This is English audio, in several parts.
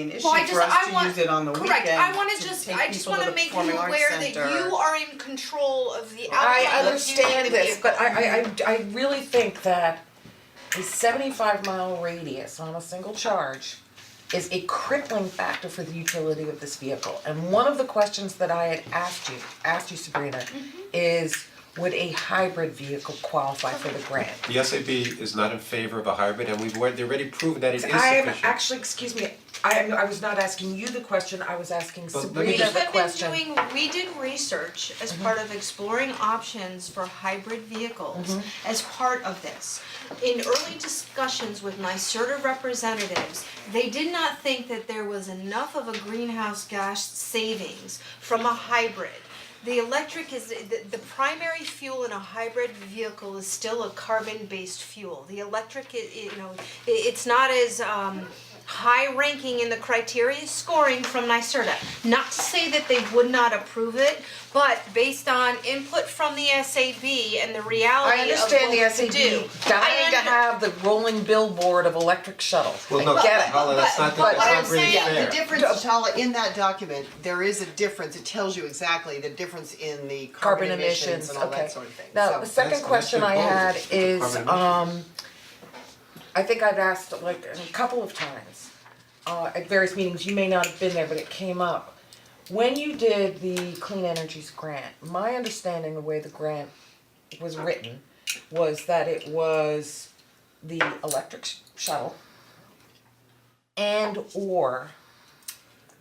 an issue Well, I for just- I us to want- use it on the weekend Correct, I wanna to just, take I just people to wanna the make you Performing Arts aware that Center. you are in control of the outcome I of using understand the this, but vehicle. I I I I really think that a seventy-five mile radius on a single charge is a crippling factor for the utility of this vehicle. And one of the questions that I had asked you, asked you Sabrina, is would a hybrid vehicle qualify for the grant? The SAB is not in favor of a hybrid and we've already already proven that it is sufficient. I am actually, excuse me, I am, I was not asking you the question, I was asking But let me Sabrina just- the We've question. been Mm-hmm. doing, we did research as part of exploring options for hybrid vehicles Mm-hmm. as part of this. In early discussions with NYSERDA representatives, they did not think that there was enough of a greenhouse gas savings from a hybrid. The electric is, the, the primary fuel in a hybrid vehicle is still a carbon-based fuel. The electric, i- i- you know, i- it's not as, um, high ranking in the criteria scoring from NYSERDA. Not to say that they would not approve it, but based on input from the SAB and the I reality of what understand the we SAB do. dying to under- have the rolling billboard of electric shuttle, Well, no, I get it. Paula, that's not, but- that's but not I'm really fair. Yeah, the difference, Shala, in that document, there is a difference, it tells you exactly the difference in the carbon emissions and all that sort of thing, Now, the so- second That's- question I that's good had goals. is, Carbon emissions. um, I think I've asked like a couple of times, uh, at various meetings, you may not have been there, but it came up. When you did the Clean Energies grant, my understanding, the way the grant was written, was that it was the electric sh- shuttle and or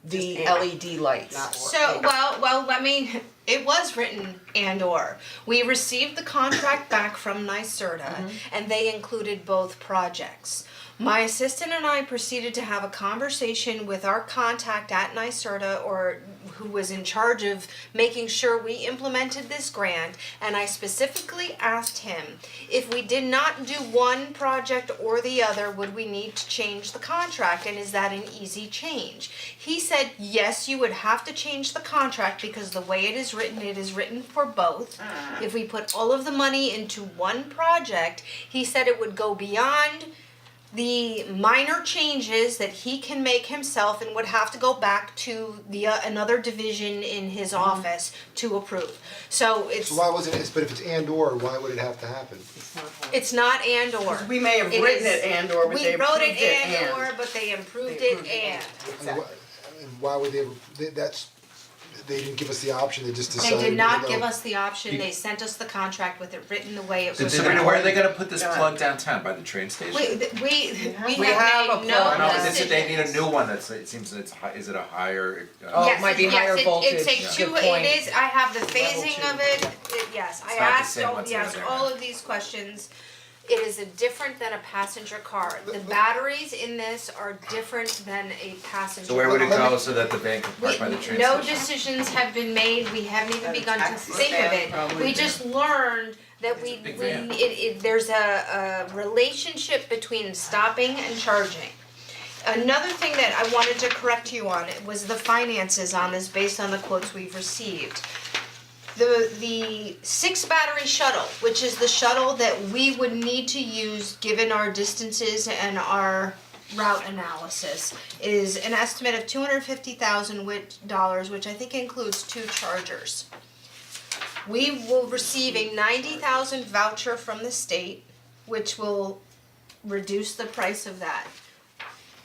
the Just and, LED lights. not or. So, well, well, let me, it was written and or. We received the contract back from NYSERDA and they included both projects. My assistant and I proceeded to have a conversation with our contact at NYSERDA or who was in charge of making sure we implemented this grant. And I specifically asked him if we did not do one project or the other, would we need to change the contract? And is that an easy change? He said, yes, you would have to change the contract because the way it is written, it is written for both. If we put all of the money into one project, he said it would go beyond the minor changes that he can make himself and would have to go back to the uh, another division in his office to approve. So it's So why wasn't it, but if it's and or, why would it have to happen? it's not and or. We may have It written is- it and or, but they approved We wrote it it and and. or, but they improved it and. And why, and why would they, they- that's, they didn't give us the option, they just They decided, did not no. give us the option, they sent us the contract with it written the way it So was. Sabrina, where are they gonna put this Yeah. plug downtown, by the train station? We, th- we, we We have have a made No, plan. is no it, decisions. they need a new one that's, it seems it's, hi- is it a higher, Oh, it uh, Yes, might be yes, higher it- voltage, It takes yeah. two, Good point. it is, I have the phasing of it, it- yes, I It's not the asked, same all- what's in yes, there. all of these questions. It is a different than a passenger car, the batteries in this are different than a passenger so where would it car. go so that the van can park by the We, train station? no decisions have been made, we haven't even begun to taxi think of stand it, probably. we just learned that It's we, a we, big van. it, it, there's a, a relationship between stopping and charging. Another thing that I wanted to correct you on was the finances on this based on the quotes we've received. The the six battery shuttle, which is the shuttle that we would need to use given our distances and our route analysis, is an estimate of two hundred fifty thousand dollars, which I think includes two chargers. We will receive a ninety thousand voucher from the state, which will reduce the price of that.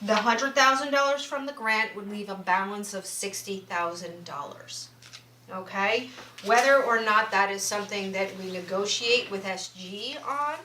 The hundred thousand dollars from the grant would leave a balance of sixty thousand dollars. Okay, whether or not that is something that we negotiate with SG on,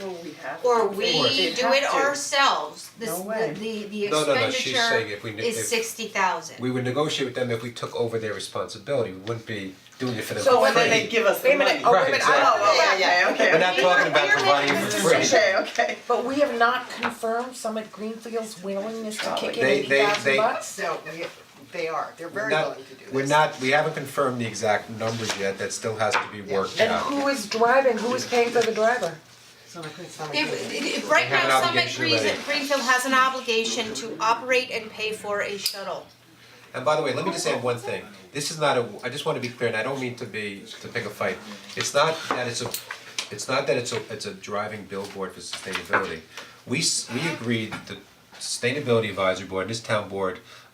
Well, we have. or to. we They'd do have it to. ourselves, this, No way. the, the, the No, no, no, she's saying if we expenditure ne- is if- sixty thousand. We would negotiate with them if we took over their responsibility, we wouldn't be doing it for them for free. So when they give us the Wait a money. minute, oh, wait a Right, minute, I exactly. don't- Oh, yeah, yeah, yeah, okay. We're not talking about providing for free. Okay, okay. But we have not confirmed Summit Greenfield's willingness to kick in They- eighty they- thousand they- bucks? No, we, they are, they're very Not- willing to do this. We're not, we haven't confirmed the exact numbers yet, that still has to be worked And out. who is driving, who is paying for the driver? So I couldn't stomach If- it. if- right have now, an Summit obligation Green, already. Greenfield has an obligation to operate and pay for a shuttle. And by the way, let me just add one thing, this is not a, I just wanna be clear, and I don't mean to be, to pick a fight, it's not that it's a, it's not that it's a, it's a driving billboard for sustainability. We, s- we agreed, the Sustainability Advisory Board, and this town board